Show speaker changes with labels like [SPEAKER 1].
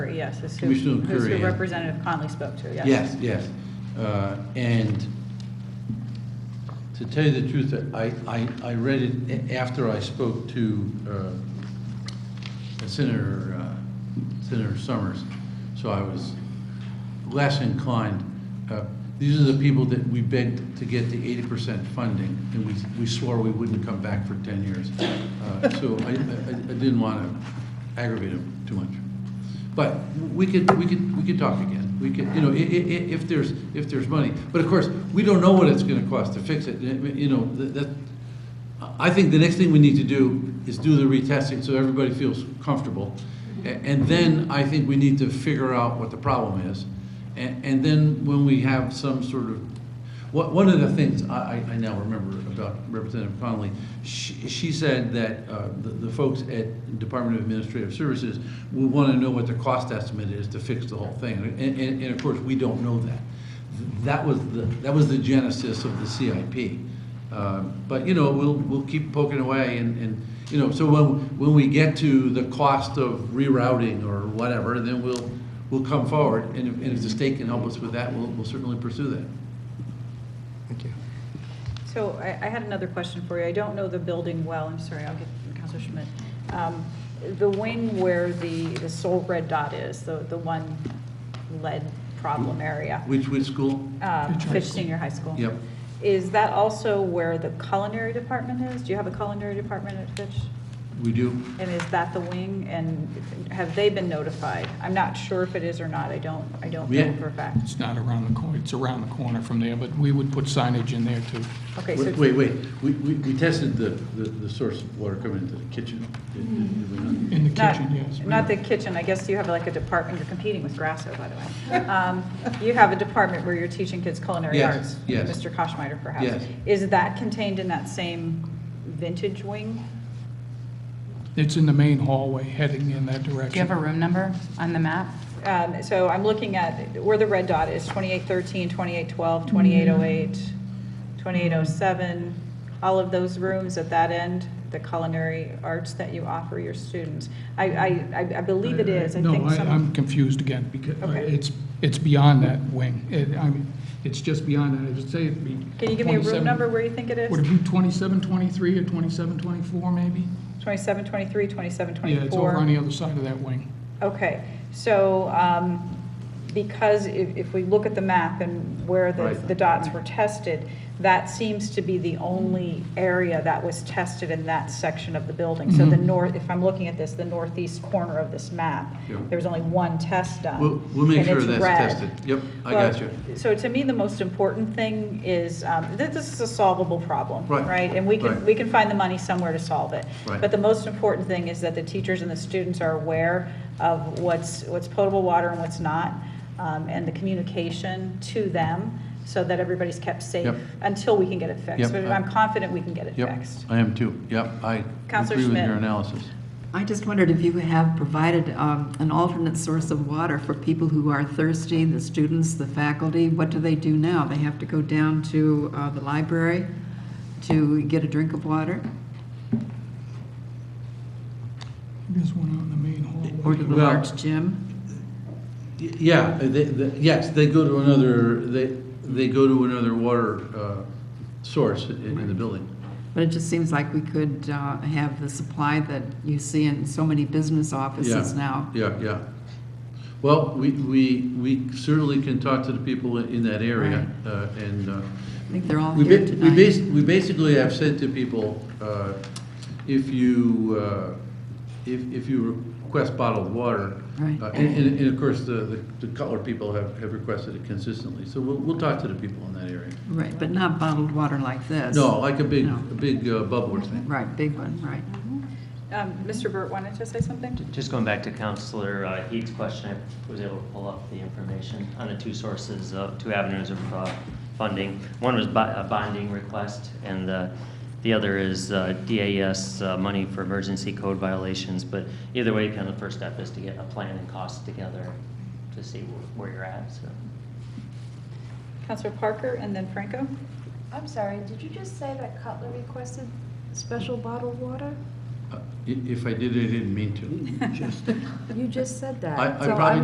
[SPEAKER 1] yes, is who,
[SPEAKER 2] Commissioner
[SPEAKER 1] who's who
[SPEAKER 2] Currier.
[SPEAKER 1] Representative Conley spoke to, yes.
[SPEAKER 2] Yes, yes. Uh, And to tell you the truth, I, I, I read it a- after I spoke to uh, Senator, uh, Senator Summers, so I was less inclined. Uh, These are the people that we begged to get the 80% funding, and we, we swore we wouldn't come back for 10 years. Uh, So I, I I didn't want to aggravate them too much. But we could, we could, we could talk again. We could, you know, i- i- i- if there's, if there's money. But of course, we don't know what it's gonna cost to fix it, you know, that, that- I think the next thing we need to do is do the retesting so everybody feels comfortable. A- And then I think we need to figure out what the problem is. And, and then when we have some sort of, what, one of the things I, I I now remember about Representative Connolly, she, she said that uh, the, the folks at Department of Administrative Services will wanna know what the cost estimate is to fix the whole thing. And, and, and of course, we don't know that. That was the, that was the genesis of the CIP. Uh, But, you know, we'll, we'll keep poking away and, and, you know, so when, when we get to the cost of rerouting or whatever, then we'll, we'll come forward. And if, and if the state can help us with that, we'll, we'll certainly pursue that.
[SPEAKER 3] Thank you.
[SPEAKER 1] So I, I had another question for you. I don't know the building well, I'm sorry, I'll get Counselor Schmidt. Um, The wing where the, the sole red dot is, the, the one lead problem area,
[SPEAKER 2] Which, which school?
[SPEAKER 1] um, Fitch Senior High School.
[SPEAKER 2] Yep.
[SPEAKER 1] Is that also where the culinary department is? Do you have a culinary department at Fitch?
[SPEAKER 2] We do?
[SPEAKER 1] And is that the wing? And have they been notified? I'm not sure if it is or not, I don't, I don't know
[SPEAKER 2] Yeah.
[SPEAKER 1] for a fact.
[SPEAKER 4] It's not around the corner, it's around the corner from there, but we would put signage in there too.
[SPEAKER 1] Okay, so
[SPEAKER 2] Wait, wait, wait. we, we we tested the, the the source of water coming into the kitchen. Did- did we not?
[SPEAKER 4] In the
[SPEAKER 1] Not-
[SPEAKER 4] kitchen, yes.
[SPEAKER 1] Not the kitchen, I guess you have like a department, you're competing with Grasso, by the way. Um, You have a department where you're teaching kids culinary
[SPEAKER 2] Yes,
[SPEAKER 1] arts.
[SPEAKER 2] yes.
[SPEAKER 1] Mr. Koschmider, perhaps.
[SPEAKER 2] Yes.
[SPEAKER 1] Is that contained in that same vintage wing?
[SPEAKER 4] It's in the main hallway heading in that
[SPEAKER 5] Do you have
[SPEAKER 4] direction.
[SPEAKER 5] a room number on the map?
[SPEAKER 1] Um, So I'm looking at where the red dot is, 2813, 2812, 2808, 2807, all of those rooms at that end, the culinary arts that you offer your students. I, I, I- I believe it is, I think
[SPEAKER 4] Uh, No, I- I'm
[SPEAKER 1] some,
[SPEAKER 4] confused again, because uh,
[SPEAKER 1] Okay.
[SPEAKER 4] it's, it's beyond that wing. It, I mean, it's just beyond that, I would say it'd be
[SPEAKER 1] can you give me a room
[SPEAKER 4] 27
[SPEAKER 1] number where you think it is?
[SPEAKER 4] Would it be twenty-seven, twenty-three, or twenty-seven, twenty-four, maybe?
[SPEAKER 1] 27, 23, 27,
[SPEAKER 4] Yeah, it's over on
[SPEAKER 1] 24?
[SPEAKER 4] the other side of that wing.
[SPEAKER 1] Okay, so um, because if, if we look at the map and where the,
[SPEAKER 2] Right.
[SPEAKER 1] the dots were tested, that seems to be the only area that was tested in that section of the building. So the
[SPEAKER 2] Mm-hmm.
[SPEAKER 1] north, if I'm looking at this, the northeast corner of this map,
[SPEAKER 2] Yeah.
[SPEAKER 1] there was only one test done.
[SPEAKER 2] We'll, we'll make
[SPEAKER 1] and
[SPEAKER 2] sure
[SPEAKER 1] it's
[SPEAKER 2] that's
[SPEAKER 1] red.
[SPEAKER 2] tested. Yep, I
[SPEAKER 1] Well,
[SPEAKER 2] got you.
[SPEAKER 1] So to me, the most important thing is, um, that this is a solvable problem,
[SPEAKER 2] Right.
[SPEAKER 1] right? And we can,
[SPEAKER 2] Right.
[SPEAKER 1] we can find the money somewhere to solve it.
[SPEAKER 2] Right.
[SPEAKER 1] But the most important thing is that the teachers and the students are aware of what's, what's potable water and what's not, um, and the communication to them, so that everybody's kept safe
[SPEAKER 2] Yep.
[SPEAKER 1] until we can get it fixed.
[SPEAKER 2] Yep.
[SPEAKER 1] But I'm confident we can get it
[SPEAKER 2] Yep,
[SPEAKER 1] fixed.
[SPEAKER 2] I am too. Yep, I
[SPEAKER 1] Counselor
[SPEAKER 2] agree with
[SPEAKER 1] Schmidt.
[SPEAKER 2] your analysis.
[SPEAKER 6] I just wondered if you have provided um, an alternate source of water for people who are thirsty, the students, the faculty? What do they do now? They have to go down to uh, the library to get a drink of water?
[SPEAKER 4] There's one out in the main hallway.
[SPEAKER 6] Or to the
[SPEAKER 2] Well-
[SPEAKER 6] large gym?
[SPEAKER 2] Y- Yeah, they, they, yes, they go to another, they, they go to another water, uh, source in, in the building.
[SPEAKER 6] But it just seems like we could uh, have the supply that you see in so many business offices
[SPEAKER 2] Yeah,
[SPEAKER 6] now.
[SPEAKER 2] Yeah, yeah. Well, we, we, we certainly can talk to the people in in that area, uh, and, uh,
[SPEAKER 6] I think they're all
[SPEAKER 2] we
[SPEAKER 6] here
[SPEAKER 2] ba- we
[SPEAKER 6] tonight.
[SPEAKER 2] bas, we basically have said to people, uh, if you, uh, if, if you request bottled water,
[SPEAKER 6] Right.
[SPEAKER 2] uh, and, and, and of course, the, the- the Cutler people have, have requested it consistently, so we'll, we'll talk to the people in that area.
[SPEAKER 6] Right, but not bottled water like this.
[SPEAKER 2] No, like a big,
[SPEAKER 6] No.
[SPEAKER 2] a big uh, bubbler thing.
[SPEAKER 6] Right, big one, right.
[SPEAKER 1] Um, Mr. Burt wanted to say something?
[SPEAKER 7] Just going back to Counselor uh, Heat's question, I was able to pull up the information on the two sources, of two avenues of uh, funding. One was bo- a bonding request, and uh, the other is uh, DAS uh, money for emergency code violations. But either way, kind of the first step is to get a plan and cost together to see wh- where you're at, so.
[SPEAKER 1] Counselor Parker and then Franco?
[SPEAKER 8] I'm sorry, did you just say that Cutler requested special bottled water?
[SPEAKER 2] Uh, i- If I did, I didn't mean to.
[SPEAKER 8] You just said that.
[SPEAKER 2] I- I
[SPEAKER 8] So
[SPEAKER 2] probably